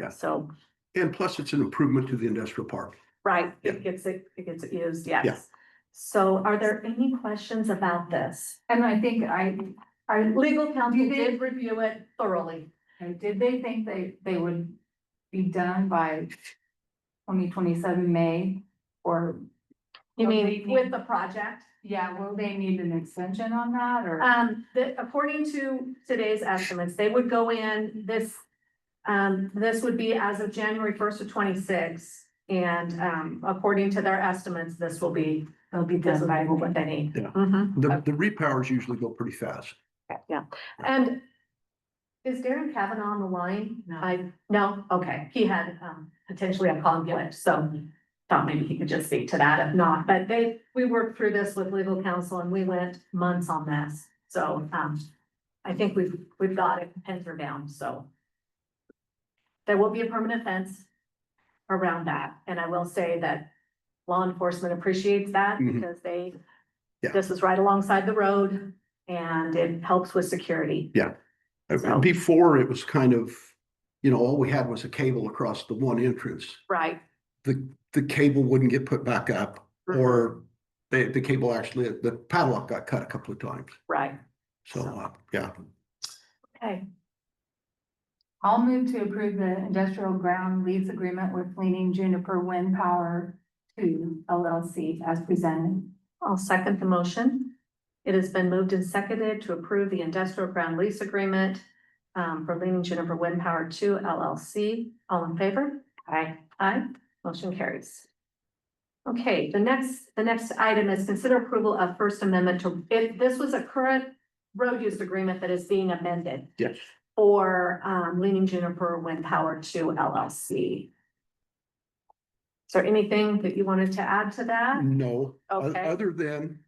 Yeah. So, And plus, it's an improvement to the industrial park. right, Yeah. it gets, it gets used, yes. So are there any questions about this? And I think I, I, Legal counsel You did- did review it thoroughly. did they think they, they would be done by twenty twenty-seven May? Or, You mean- With the project. yeah, will they need an extension on that or? Um, the, according to today's estimates, they would go in this, um, this would be as of January first of twenty-six. And, um, according to their estimates, this will be, They'll be this done will by. be what they need. Yeah. Mhm. The, the repowers usually go pretty fast. Yeah, and is Darren Kavanaugh on the line? No. I, no, okay, he had, um, potentially a conflict, so thought maybe he could just speak to that, if not, but they, we worked through this with legal counsel and we went months on this, so, um, I think we've, we've got it penciled down, so. There will be a permanent fence around that, and I will say that law enforcement appreciates that Mhm. because they, Yeah. this is right alongside the road and it helps with security. So- Before, it was kind of, you know, all we had was a cable across the one entrance. Right, The, the cable wouldn't get put back up Mm-hmm. or the, the cable actually, the padlock got cut a couple of times. right, So, uh, yeah. okay. I'll move to approve the industrial ground lease agreement with Leaning Juniper Wind Power Two LLC as presented. I'll second the motion. It has been moved and seconded to approve the industrial ground lease agreement um, for Leaning Juniper Wind Power Two LLC. All in favor? Aye. Aye, motion carries. Okay, the next, the next item is consider approval of First Amendment to, if this was a current road use agreement that is being amended Yes. for um, Leaning Juniper Wind Power Two LLC. Is there anything that you wanted to add to Mm, that? No, o- Okay. other than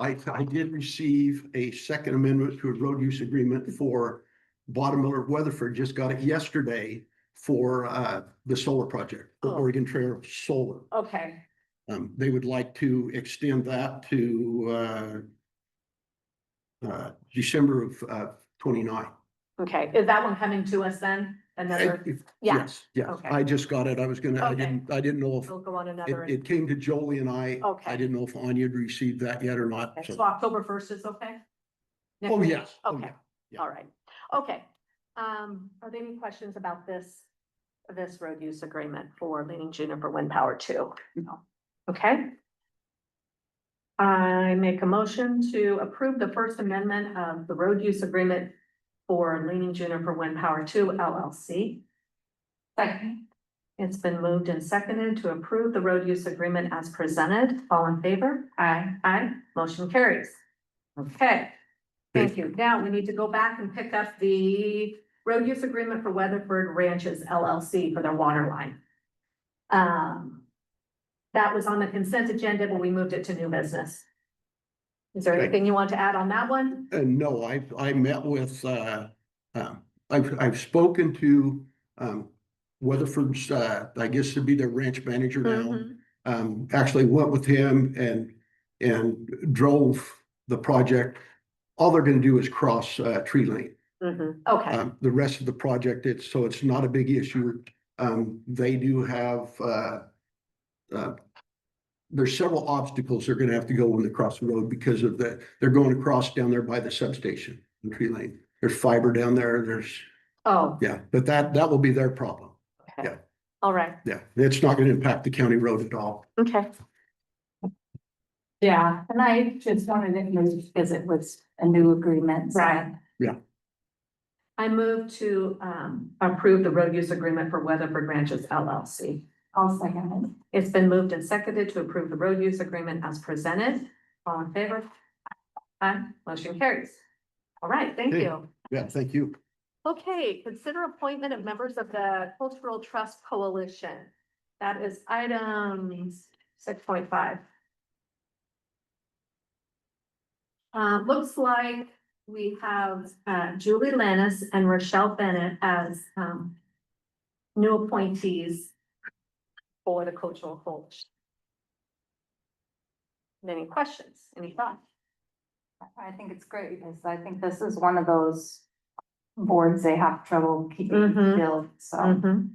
I, I did receive a second amendment to a road use agreement for Bottom Miller Weatherford, just got it yesterday for, uh, the solar project, the Oh. Oregon Trail Solar. Okay. Um, they would like to extend that to, uh, uh, December of, uh, twenty-nine. Okay, is that one coming to us then? Another, If- yeah, Yes, yes, okay. I just got it. I was gonna, I Okay. didn't, I didn't know if, we'll go on another. it, it came to Jolie and I. I Okay. didn't know if Anya had received that yet or not. Okay, so- So October first is okay? Next Oh, week? yes. Oh, Okay, yeah. yeah. all right, okay. Um, are there any questions about this, this road use agreement for Leaning Juniper Wind Power Two? No. Mm-hmm. Okay. I make a motion to approve the First Amendment of the road use agreement for Leaning Juniper Wind Power Two LLC. Second. It's been moved and seconded to approve the road use agreement as presented. All in favor? Aye. Aye. Motion carries. Okay. Thank you. Now we need to go back and pick up the road use agreement for Weatherford Ranches LLC for their water line. Um, that was on the consent agenda, but we moved it to new business. Is there Okay. anything you want to add on that one? Uh, no, I, I met with, uh, um, I've, I've spoken to, um, Weatherford's, uh, I guess it'd be their ranch manager now. Mm-hmm. Um, actually went with him and, and drove the project. All they're gonna do is cross, uh, tree lane. Mhm. Okay, Um, the rest of the project, it's, so it's not a big issue. Um, they do have, uh, uh, there's several obstacles they're gonna have to go when they cross the road because of the, they're going across down there by the substation in Tree Lane. There's fiber down there, there's, oh, yeah, but that, that will be their problem. okay. yeah. All right, Yeah, it's not gonna impact the county road at all. okay. Yeah, and I just wanted to move because it was a new agreement. so- Right. Yeah. I move to um approve the road use agreement for Weatherford Ranches LLC. I'll second it. It's been moved and seconded to approve the road use agreement as presented. All in favor? Aye, motion carries. All right, thank Okay. you. Yeah, thank you. Okay, consider appointment of members of the Cultural Trust Coalition. That is item six point five. Uh, looks like we have uh, Julie Lannis and Rochelle Bennett as um, new appointees for the Cultural Coalition. Any questions, any thoughts? I think it's great because I think this is one of those boards, they have trouble keeping Mhm. filled, so. Mhm.